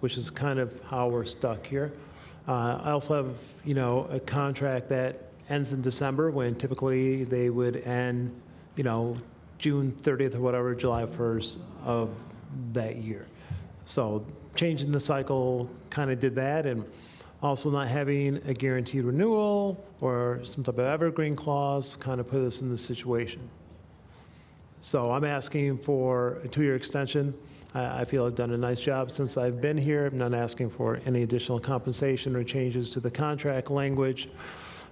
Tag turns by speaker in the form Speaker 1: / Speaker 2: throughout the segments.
Speaker 1: which is kind of how we're stuck here. Uh, I also have, you know, a contract that ends in December when typically they would end, you know, June 30th or whatever, July 1st of that year. So changing the cycle kind of did that, and also not having a guaranteed renewal or some type of evergreen clause kind of put us in this situation. So I'm asking for a two-year extension. I, I feel I've done a nice job since I've been here. I'm not asking for any additional compensation or changes to the contract language.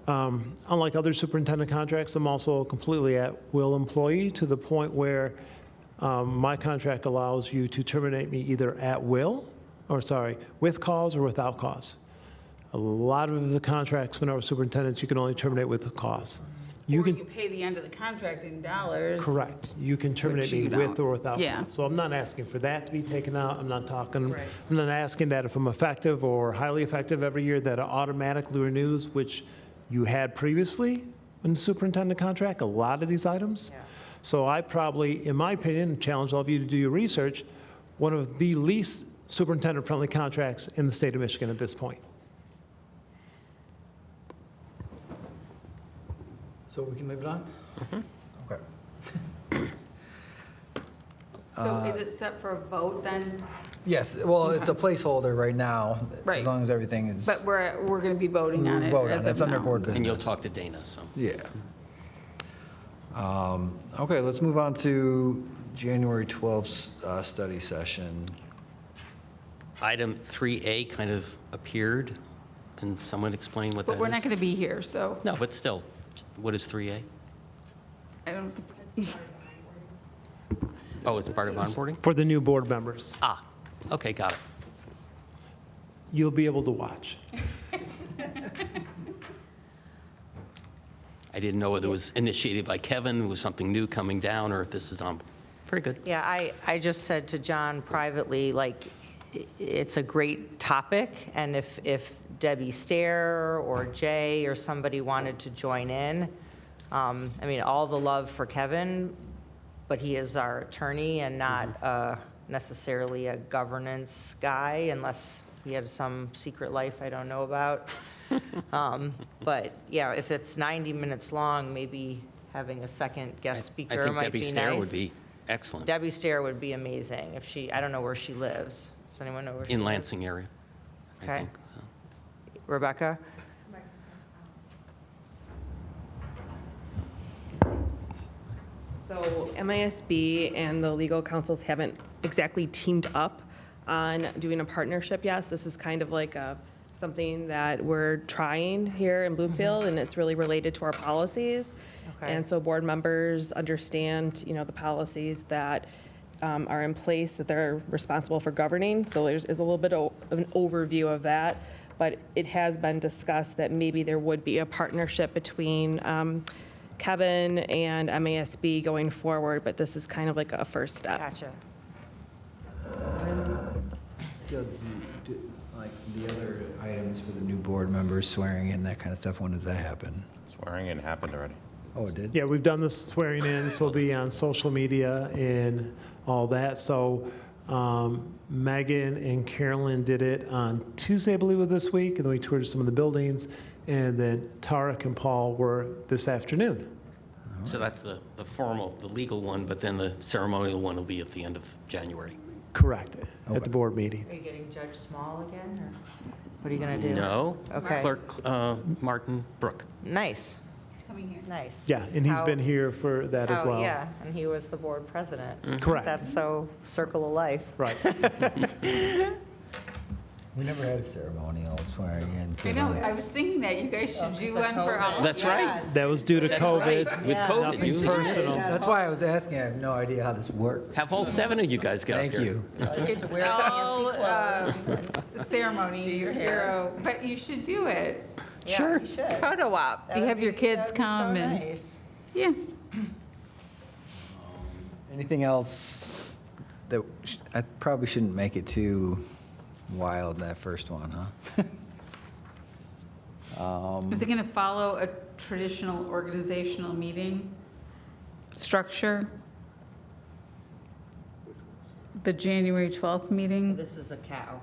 Speaker 1: Um, Unlike other superintendent contracts, I'm also completely at-will employee to the point where um, my contract allows you to terminate me either at will, or sorry, with cause or without cause. A lot of the contracts when I was superintendent, you can only terminate with a cause. You
Speaker 2: Or
Speaker 1: can.
Speaker 2: you pay the end of the contract in dollars.
Speaker 1: Correct. You can terminate me
Speaker 2: you
Speaker 1: with
Speaker 2: don't.
Speaker 1: or without.
Speaker 2: Yeah.
Speaker 1: cause. So I'm not asking for that to be taken out. I'm not talking,
Speaker 2: Right.
Speaker 1: I'm not asking that if I'm effective or highly effective every year, that it automatically renews, which you had previously in the superintendent contract, a lot of these items.
Speaker 2: Yeah.
Speaker 1: So I probably, in my opinion, challenge all of you to do your research, one of the least superintendent-friendly contracts in the state of Michigan at this point.
Speaker 3: So we can move it on?
Speaker 2: Mm-hmm.
Speaker 3: Okay.
Speaker 2: So is it set for a vote then?
Speaker 3: Yes, well, it's a placeholder right now.
Speaker 2: Right.
Speaker 3: As long as everything is.
Speaker 2: But we're, we're going to be voting on it
Speaker 3: voted
Speaker 2: as
Speaker 3: It's
Speaker 2: of
Speaker 3: under
Speaker 2: now.
Speaker 3: board
Speaker 4: And
Speaker 3: business.
Speaker 4: you'll talk to Dana, so.
Speaker 3: Yeah. Um, Okay, let's move on to January 12th 's, uh, study session.
Speaker 4: Item 3A kind of appeared. Can someone explain what that is?
Speaker 2: But we're not going to be here, so
Speaker 4: No, but still, what is 3A?
Speaker 2: I don't, think-
Speaker 4: Oh, it's part of onboarding?
Speaker 1: For the new board members,
Speaker 4: Ah, okay, got it.
Speaker 1: you'll be able to watch.
Speaker 4: I didn't know whether it was initiated by Kevin, was something new coming down, or if this is on, very good.
Speaker 5: Yeah, I, I just said to John privately, like, i- it's a great topic, and if, if Debbie Stair or Jay or somebody wanted to join in, um, I mean, all the love for Kevin, but he is our attorney and not
Speaker 4: Mm-hmm.
Speaker 5: uh, necessarily a governance guy unless he had some secret life I don't know about. Um, But, yeah, if it's 90 minutes long, maybe having a second guest
Speaker 4: I
Speaker 5: speaker
Speaker 4: think
Speaker 5: might
Speaker 4: Debbie
Speaker 5: be nice.
Speaker 4: Stair would be excellent,
Speaker 5: Debbie Stair would be amazing if she, I don't know where she lives. Does anyone know where she lives?
Speaker 4: in Lansing area, I
Speaker 5: Okay.
Speaker 4: think, so.
Speaker 5: Rebecca?
Speaker 6: So MISB and the legal councils haven't exactly teamed up on doing a partnership Yes, This is kind of like a, something that we're trying here in Bloomfield, and it's really related to our policies.
Speaker 5: Okay.
Speaker 6: And so board members understand, you know, the policies that um, are in place that they're responsible for governing. So there's is a little bit o- of an overview of that. But it has been discussed that maybe there would be a partnership between um, Kevin and MASB going forward, but this is kind of like a first step.
Speaker 5: Gotcha.
Speaker 3: Does, like, the other items for the new board members swearing in, that kind of stuff, when does that happen?
Speaker 7: Swearing in happened already.
Speaker 3: Oh, it did?
Speaker 1: Yeah, we've done this swearing in, this will be on social media and all that. So um, Megan and Carolyn did it on Tuesday, I believe, of this week, and then we toured some of the buildings. And then Tarek and Paul were this afternoon.
Speaker 4: So that's the, the formal, the legal one, but then the ceremonial one will be at the end of January.
Speaker 1: Correct, at the board meeting.
Speaker 5: Are you getting Judge Small again, or what are you going to do?
Speaker 4: No?
Speaker 5: Okay.
Speaker 4: Clerk uh, Martin Brook.
Speaker 5: Nice,
Speaker 2: he's coming here.
Speaker 5: nice.
Speaker 1: Yeah, and he's
Speaker 5: How-
Speaker 1: been here for that as
Speaker 5: how-
Speaker 1: well.
Speaker 5: Yeah, and he was the board president.
Speaker 4: Mm-hmm.
Speaker 1: Correct.
Speaker 5: That's so circle of life.
Speaker 1: Right.
Speaker 3: We never had a ceremonial swearing in. so
Speaker 2: I know,
Speaker 3: that-
Speaker 2: I was thinking that you guys should do
Speaker 5: Oh, it's like
Speaker 2: one for all.
Speaker 4: That's right.
Speaker 2: Yes.
Speaker 1: That was due to
Speaker 4: That's right,
Speaker 1: COVID.
Speaker 4: With COVID,
Speaker 1: Nothing
Speaker 4: you-
Speaker 1: personal.
Speaker 3: That's why I was asking, I have no idea how this works.
Speaker 4: Have all seven of you guys get up here.
Speaker 3: Thank you.
Speaker 2: It's all um, ceremony, your hero, but you should do it.
Speaker 5: Sure. You should.
Speaker 2: Photo op, you
Speaker 5: That'd
Speaker 2: have your
Speaker 5: be-
Speaker 2: kids
Speaker 5: that'd be so
Speaker 2: come and,
Speaker 5: nice.
Speaker 2: yeah.
Speaker 3: Anything else that, sh- I probably shouldn't make it too wild, that first one, huh?
Speaker 2: Is it going to follow a traditional organizational meeting structure? The January 12th meeting?
Speaker 5: This is a cow.